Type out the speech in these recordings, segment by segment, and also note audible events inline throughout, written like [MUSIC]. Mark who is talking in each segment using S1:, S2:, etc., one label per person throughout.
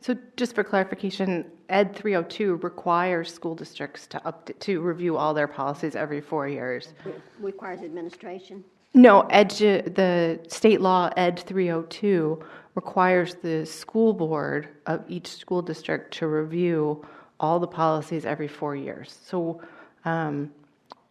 S1: So just for clarification, Ed 302 requires school districts to up, to review all their policies every four years.
S2: requires administration.
S1: No, Ed, the state law Ed 302 requires the school board of each school district to review all the policies every four years. So um,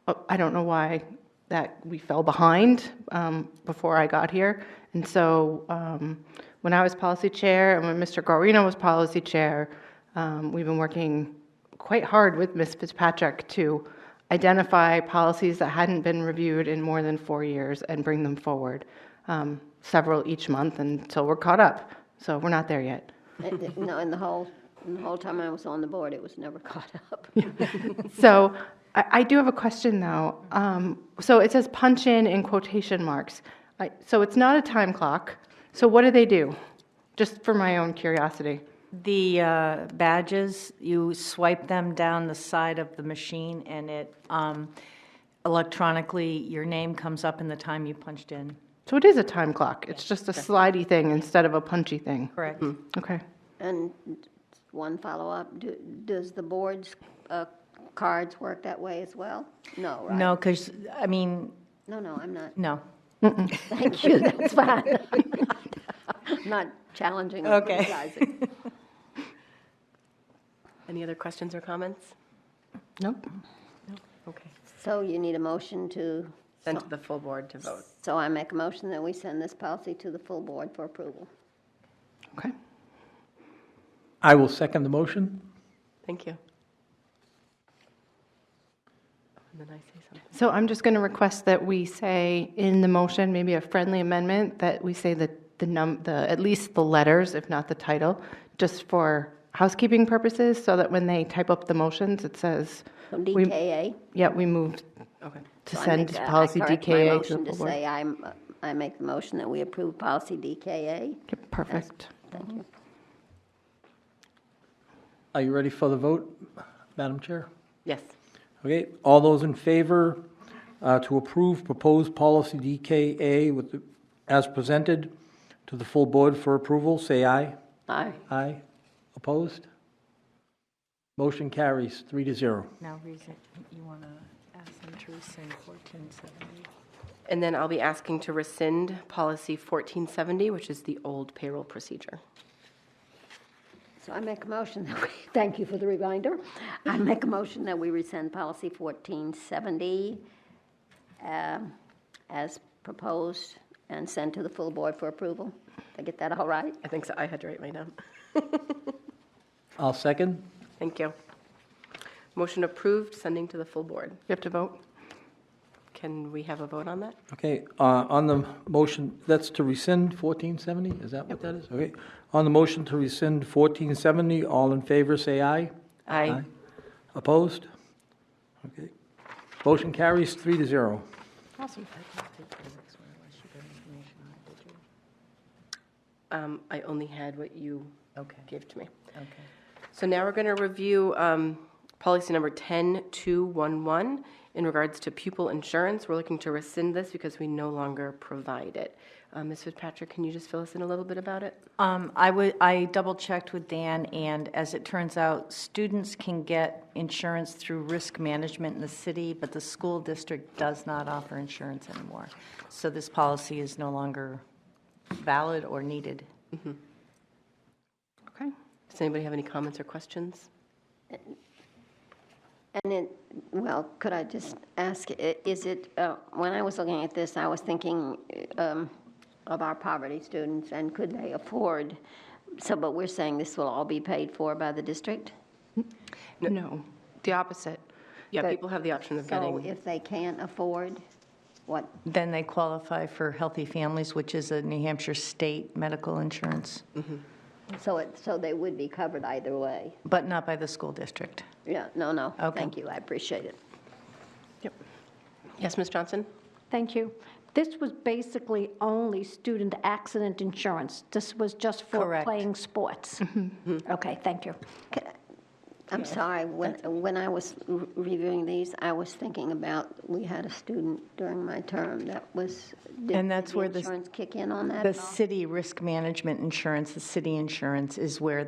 S1: uh, I don't know why that we fell behind um, before I got here. And so um, when I was policy chair and when Mr. Guarino was policy chair, um, we've been working quite hard with Ms. Fitzpatrick to identify policies that hadn't been reviewed in more than four years and bring them forward, um, several each month until we're caught up. So we're not there yet.
S2: It- it- No, in the whole, in the whole time I was on the board, it was never [LAUGHS] caught up.
S1: So I, I do have a question, though. Um, so it says punch in in quotation marks. I, so it's not a time clock. So what do they do? Just for my own curiosity.
S3: The uh, badges, you swipe them down the side of the machine, and it um, electronically, your name comes up in the time you punched in,
S1: So it is a time clock. It's just a slidey thing instead of a punchy thing.
S3: correct?
S1: Okay.
S2: And one follow-up, do- does the board's uh, cards work that way as well? No, right?
S3: No, because, I mean,
S2: No, no, I'm [LAUGHS] not.
S3: no.
S2: Thank you, that's fine. I'm not- [LAUGHS] I'm Not challenging or
S3: Okay.
S2: criticizing.
S4: Any other questions or comments?
S1: Nope.
S4: Okay.
S2: So you need a motion to,
S4: Send to the full board to vote.
S2: so I make a motion that we send this policy to the full board for approval.
S1: Okay.
S5: I will second the motion.
S4: Thank you. And then I say something.
S1: So I'm just going to request that we say in the motion, maybe a friendly amendment, that we say that the num, the, at least the letters, if not the title, just for housekeeping purposes, so that when they type up the motions, it says,
S2: So
S1: We-
S2: DKA.
S1: yeah, we moved
S4: Okay.
S1: to
S2: So I
S1: send
S2: make a- I
S1: policy
S2: correct my
S1: DKA to the
S2: motion
S1: full
S2: say
S1: board.
S2: I'm, uh, I make the motion that we approve policy DKA.
S1: Okay, Perfect.
S2: Thank you.
S1: Mm-hmm.
S5: Are you ready for the vote, Madam Chair?
S4: Yes.
S5: Okay, all those in favor uh, to approve proposed policy DKA with, the- as presented to the full board for approval, say aye.
S2: Aye.
S5: Aye. Opposed? Motion carries three to zero.
S3: Now, reason, you want to ask them to rescind 1470.
S4: And then I'll be asking to rescind policy 1470, which is the old payroll procedure.
S2: So I make a motion that we, [LAUGHS] thank you for the reminder. I make a motion that we rescind policy 1470 um, as proposed and send to the full board for approval. Did I get that all right?
S4: I think so. I had to write my name.
S5: I'll second.
S4: Thank you. Motion approved, sending to the full board.
S1: You have to vote?
S4: Can we have a vote on that?
S5: Okay, uh, on the motion, that's to rescind 1470, is that what that is? Okay, on the motion to rescind 1470, all in favor, say aye.
S4: Aye.
S5: Opposed? Okay. Motion carries three to zero.
S4: Um, I only had what you
S3: Okay.
S4: gave to me.
S3: Okay.
S4: So now we're going to review um, policy number 10211 in regards to pupil insurance. We're looking to rescind this because we no longer provide it. Uh, Ms. Fitzpatrick, can you just fill us in a little bit about it?
S3: Um, I would, I double-checked with Dan, and as it turns out, students can get insurance through risk management in the city, but the school district does not offer insurance anymore. So this policy is no longer valid or needed.
S1: Okay.
S4: Does anybody have any comments or questions?
S2: And it, well, could I just ask, i- is it, uh, when I was looking at this, I was thinking um, of our poverty students, and could they afford, so, but we're saying this will all be paid for by the district?
S1: No, the opposite.
S4: Yeah,
S1: That-
S4: people have the option of
S2: So
S4: getting,
S2: if they can't afford, what,
S3: Then they qualify for Healthy Families, which is a New Hampshire state medical insurance,
S2: so it, so they would be covered either way?
S3: but not by the school district.
S2: Yeah, no, no.
S3: Okay.
S2: Thank you, I appreciate it.
S4: yes, Ms. Johnson?
S6: Thank you. This was basically only student accident insurance. This was just for
S3: Correct.
S6: playing sports. Okay, thank you.
S2: I'm sorry, when, when I was re- reviewing these, I was thinking about, we had a student during my term that was. did-
S3: And that's
S2: did the
S3: where the s-
S2: Insurance kick in on that?
S3: The
S2: at all?
S3: city risk management insurance, the city insurance is where